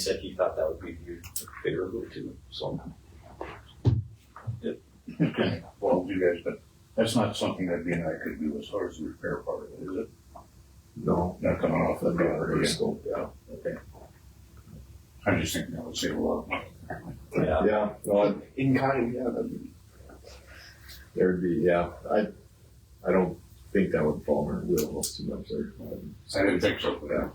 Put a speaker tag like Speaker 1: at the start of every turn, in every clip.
Speaker 1: said he thought that would be viewed favorably too, so.
Speaker 2: Okay, well, you guys, but that's not something that B and I could do as far as the repair part of it, is it?
Speaker 1: No.
Speaker 2: Not coming off the property.
Speaker 1: scope, yeah.
Speaker 2: I'm just thinking that would save a lot of money.
Speaker 1: Yeah,
Speaker 3: Yeah, no, I'd- in kind, yeah, that'd be, there'd be, yeah, I, I don't think that would fall under wheelhouse too much there.
Speaker 2: I didn't think so, uh, yeah.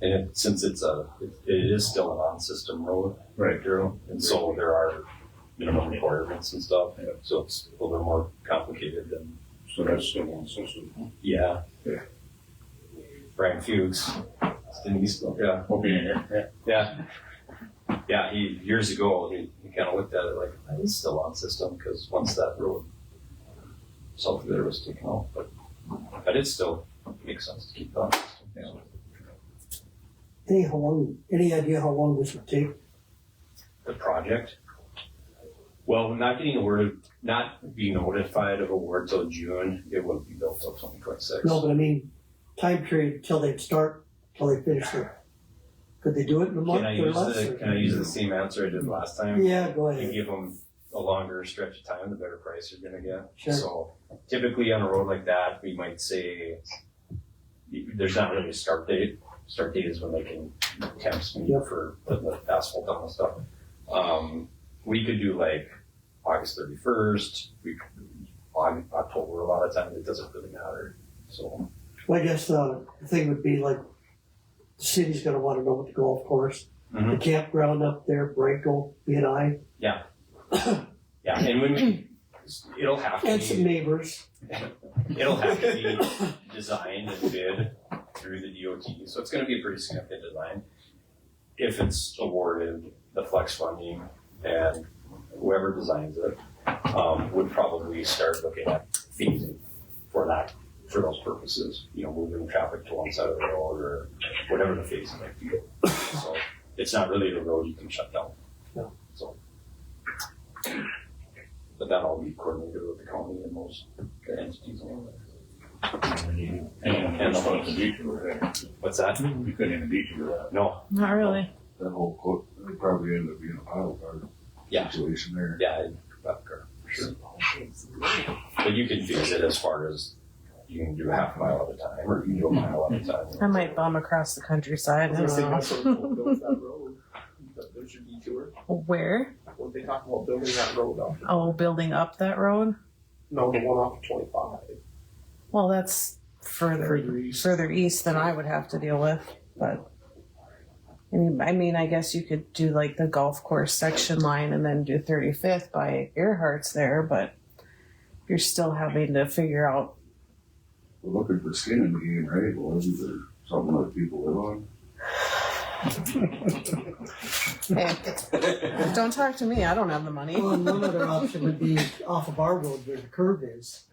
Speaker 1: and it, since it's a, it is still an on-system road,
Speaker 2: Right.
Speaker 1: Drew, and so there are minimum requirements and stuff,
Speaker 2: Yeah.
Speaker 1: so it's a little bit more complicated than,
Speaker 2: So that's the one system.
Speaker 1: yeah.
Speaker 2: Yeah.
Speaker 1: Brian Fuchs, didn't he still, yeah,
Speaker 2: We'll be in here.
Speaker 1: Yeah. Yeah, he, years ago, he, he kind of looked at it like, that is still on system, because once that road, south of there was taken off, but, but it still makes sense to keep that. system.
Speaker 4: Hey, how long, any idea how long this would take?
Speaker 1: The project, well, we're not getting awarded, not being notified of award till June, it would be built till twenty twenty-six.
Speaker 4: No, but I mean, time period till they'd start, till they finish their, could they do it in a month
Speaker 1: Can I
Speaker 4: or
Speaker 1: use
Speaker 4: less?
Speaker 1: the,
Speaker 4: or-
Speaker 1: can I use the same answer I did last time?
Speaker 4: Yeah, go
Speaker 1: you
Speaker 4: ahead.
Speaker 1: give them a longer stretch of time, the better price you're gonna get.
Speaker 4: Sure.
Speaker 1: So typically on a road like that, we might say, there's not really a start date. Start date is when they can temp speed
Speaker 4: Yep.
Speaker 1: for putting the asphalt down and stuff. Um, we could do like August thirty-first, we, August, October, a lot of times, it doesn't really matter, so.
Speaker 4: Well, I guess, uh, the thing would be like, the city's gonna wanna know what the golf course, the
Speaker 1: Mhm.
Speaker 4: campground up there, Branko, B and I,
Speaker 1: Yeah, and when we, it'll have to be.
Speaker 4: and some neighbors.
Speaker 1: It'll have to be designed and bid through the DOT, so it's gonna be a pretty significant design. If it's awarded the flex funding and whoever designs it, um, would probably start looking at phasing for that, for those purposes. You know, moving traffic to one side of the road or whatever the phasing might be. So it's not really the road you can shut down.
Speaker 4: No.
Speaker 1: So. But that'll all be coordinated with the county and those entities along there.
Speaker 2: And that's what the detour, uh,
Speaker 1: What's that?
Speaker 2: we could in a detour.
Speaker 1: No.
Speaker 5: Not really.
Speaker 3: That whole quote, it'd probably end up being a pile car
Speaker 1: Yeah.
Speaker 3: situation there.
Speaker 1: Yeah, I'd grab a car for sure. But you can fix it as far as you can do a half mile at a time, or you can do a mile at a time.
Speaker 5: Mm-hmm. I might bomb across the countryside. I don't know.
Speaker 6: There's your detour.
Speaker 5: Where?
Speaker 6: When they talk about building that road up,
Speaker 5: Oh, building up that road?
Speaker 6: no, the one off of twenty-five.
Speaker 5: Well, that's further
Speaker 6: Further east.
Speaker 5: further east than I would have to deal with. But I mean, I mean, I guess you could do like the golf course section line and then do 35th by Earhart's there, but you're still having to figure out.
Speaker 3: We're looking for skin in the game, right? Well, isn't there something that people live on?
Speaker 5: Hey, don't talk to me. I don't have the money.
Speaker 6: Oh,
Speaker 4: Well, and one other option would be off of our road where the curve is,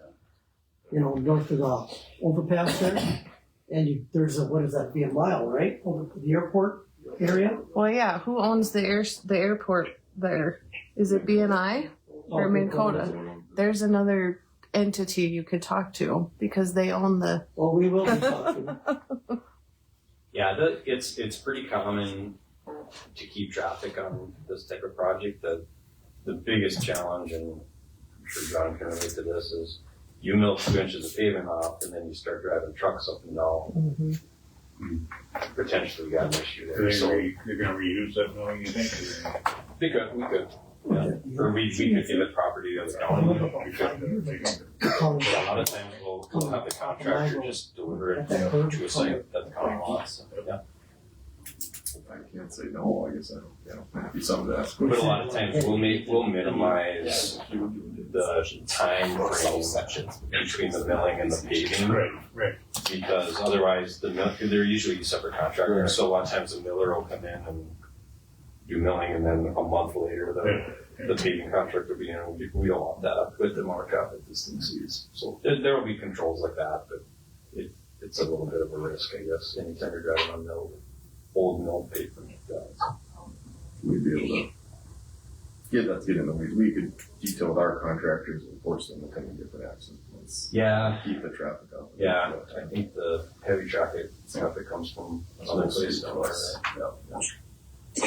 Speaker 4: you know, north of the overpass there. And you, there's a, what is that, be a mile, right, over the airport area?
Speaker 5: Well, yeah. Who owns the air the airport there? Is it BNI? Or Minn Kota. There's another entity you could talk to because they own the.
Speaker 4: Well, Oh, we will be talking.
Speaker 1: Yeah, the, it's, it's pretty common to keep traffic on this type of project. The, the biggest challenge, and I'm sure John can relate to this, is you mill two inches of pavement off and then you start driving trucks up and down,
Speaker 5: Mm-hmm.
Speaker 1: Mm-hmm. potentially you got an issue
Speaker 2: They're
Speaker 1: there,
Speaker 2: gonna
Speaker 1: so.
Speaker 2: re- they're gonna reuse that knowing you think.
Speaker 1: They could, we could, or we, we could give it property to the county.
Speaker 2: We could, uh, take it.
Speaker 4: Colin,
Speaker 1: Yeah, a lot of times we'll, we'll have the contractor just deliver it
Speaker 4: At that curve.
Speaker 1: to a site that the county wants. Yeah.
Speaker 3: I can't say no, I guess I don't, yeah, that'd be something to ask.
Speaker 1: But a lot of times we'll make, we'll minimize the time frame between the milling and the paving.
Speaker 2: Right, right.
Speaker 1: Because otherwise the mill, they're usually separate
Speaker 3: Right.
Speaker 1: contractors, so a lot of times the miller will come in and do milling and then a month later the, the paving contractor will be in, and we- we don't want that with the markup at this thing sees. So there, there will be controls like that, but it, it's a little bit of a risk, I guess, anytime you're driving on mill, old mill pavement. uh,
Speaker 3: We'd be able to get that, get in the, we, we could detail with our contractors and force them to come and get that access points.
Speaker 1: Yeah.
Speaker 3: Keep the traffic out.
Speaker 1: Yeah, I think the heavy traffic stuff that comes from other places. now, right? Yeah.